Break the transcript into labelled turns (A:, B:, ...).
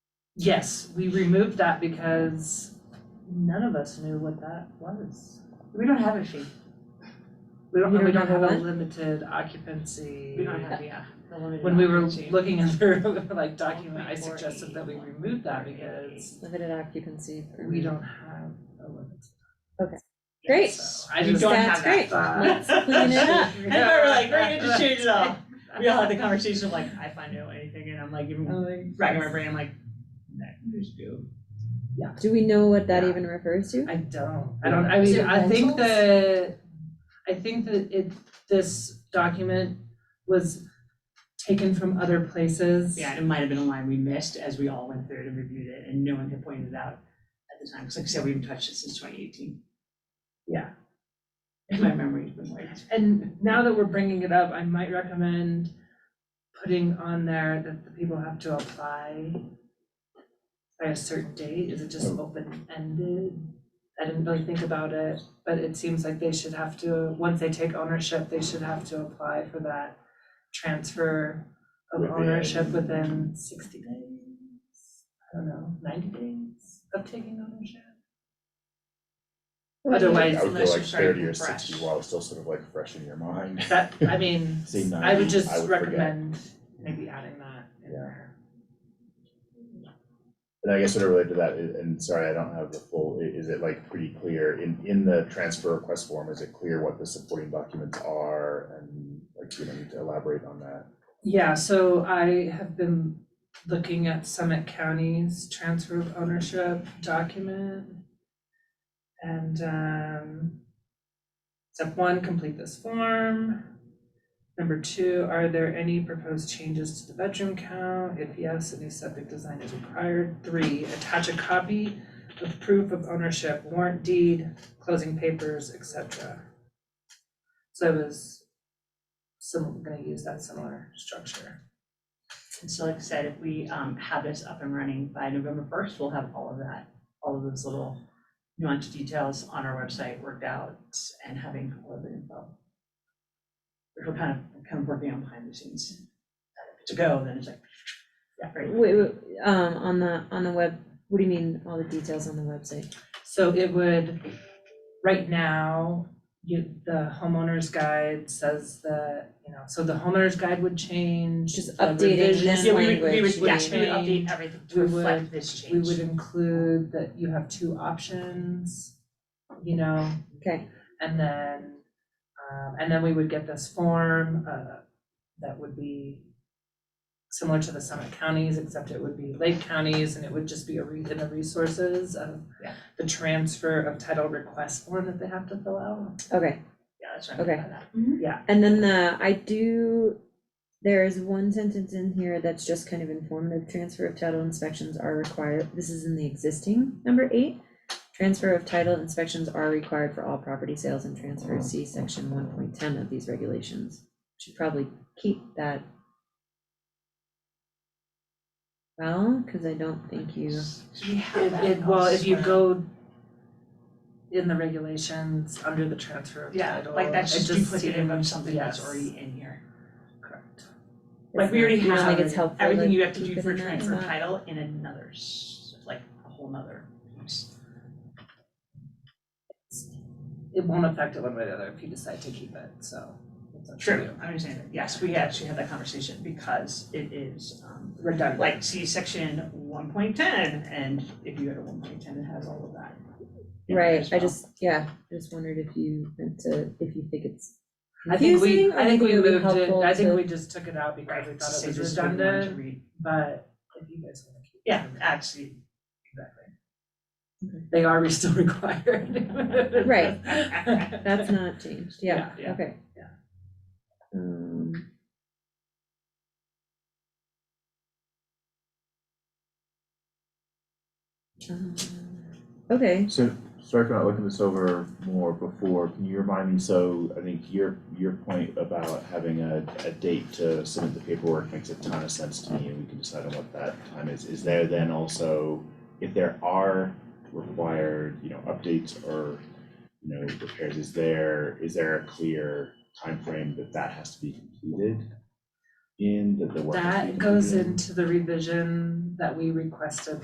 A: Yes, we removed that because none of us knew what that was.
B: We don't have a fee.
A: We don't,
B: You
A: we don't
B: don't
A: have
B: know
A: a
B: what?
A: limited occupancy.
B: We don't have, yeah.
A: When we were looking at the like document, I suggested that we remove that because
C: Limited occupancy
A: we
B: Mm-hmm.
C: permit.
A: don't have a limit.
C: Okay. Great.
A: So I
B: You
A: just
B: don't
A: don't
B: have
C: That's
B: that.
C: great. Let's clean it up.
B: And we were like, we're gonna just change it all. We all had the conversation of like, I find no anything, and I'm like, even racking my brain, I'm like, no, just do.
C: Do we know what that even refers to?
A: I don't, I don't, I
D: Is
A: mean,
D: it
A: I think that, I think that it, this document was taken from other places.
B: Yeah, and it might have been a line we missed as we all went through it and reviewed it, and no one had pointed it out at the time, because like I said, we haven't touched it since twenty eighteen.
A: Yeah.
B: And my memory's been like,
A: And now that we're bringing it up, I might recommend putting on there that the people have to apply by a certain date, is it just open-ended? I didn't really think about it, but it seems like they should have to, once they take ownership, they should have to apply for that transfer of
E: Within-
A: ownership within sixty days, I don't know, ninety days of taking ownership. Otherwise,
E: I would go
B: Unless
E: like
B: you're starting
E: thirty or
B: from
E: sixty
B: fresh.
E: while it's still sort of like fresh in your mind.
A: That, I mean,
E: Say
A: I would
E: 90, I
A: just
E: would forget.
A: recommend maybe adding that in
E: Yeah.
A: there.
E: And I guess sort of related to that, i- and sorry, I don't have the full, i- is it like pretty clear in, in the transfer request form, is it clear what the supporting documents are? And like, you don't need to elaborate on that.
A: Yeah, so I have been looking at Summit County's transfer of ownership document. And um, step one, complete this form. Number two, are there any proposed changes to the bedroom count? If yes, a new septic design is required. Three, attach a copy of proof of ownership, warrant deed, closing papers, etc. So I was some, gonna use that similar structure.
B: And so like I said, if we um have this up and running by November first, we'll have all of that, all of those little nuanced details on our website worked out and having all of the info. Which we're kind of, kind of working on behind the scenes. If it's a go, then it's like, yeah, right.
C: Wait, wait, um, on the, on the web, what do you mean, all the details on the website?
A: So it would, right now, you, the homeowner's guide says that, you know, so the homeowner's guide would change.
C: Just
A: the
C: updating this
B: Yeah,
A: revision-
B: we would, we would,
C: language
B: yes, we would update
A: change.
B: everything to
A: We would-
B: reflect this change.
A: We would include that you have two options, you know,
C: Okay,
A: and then, um, and then we would get this form, uh, that would be similar to the Summit counties, except it would be Lake counties, and it would just be a read in the resources of
B: Yeah.
A: the transfer of title request form that they have to fill out.
C: okay.
B: Yeah, that's what I meant by that.
C: And then the, I do, there is one sentence in here that's just kind of informative, transfer of title inspections are required, this is in the existing, number eight. Transfer of title inspections are required for all property sales and transfers, see section one point ten of these regulations. Should probably keep that. Well, cause I don't think you,
B: So we have that
A: It- well, if you
B: elsewhere.
A: go in the regulations under the transfer of
B: Yeah,
A: title.
B: like that's
A: it
B: just duplicative of
A: seemed-
B: something that's
A: yes,
B: already in here.
A: Correct.
B: Like we already
C: You don't
B: have
C: think it's helpful to
B: everything you have to
C: keep
B: do
C: it
B: for
C: in that
B: transfer
C: spot?
B: title in another, s- like a whole nother piece.
A: It won't affect it one way or the other if you decide to keep it, so. it's up to you.
B: I understand that, yes, we actually had that conversation because it is, um,
A: Redundant.
B: like, see section one point ten, and if you go to one point ten, it has all of that. in there
C: right,
B: as
C: I
B: well.
C: just, yeah, I just wondered if you meant to, if you think it's
A: I think we,
C: confusing, or
A: I think
C: you
A: we
C: would be
A: moved it,
C: helpful
A: I think
C: to-
A: we just took it out because
B: Right,
A: we
B: to
A: thought it
B: say
A: was
B: this is what we wanted to
A: redundant,
B: read.
A: but if you guys wanna keep. it,
B: Yeah,
A: then
B: actually,
A: They are still required.
C: Right. That's not changed, yeah,
A: Yeah,
B: yeah,
C: okay.
A: yeah.
C: Um. Um, Okay,
E: So, sorry for not looking this over more before, can you remind me, so I think your, your point about having a, a date to submit the paperwork makes a ton of sense to me, and we can decide on what that time is, is there then also, if there are required, you know, updates or, you know, repairs, is there, is there a clear time frame that that has to be completed? In, that the work has to be
A: That goes
E: completed
A: into the revision that we requested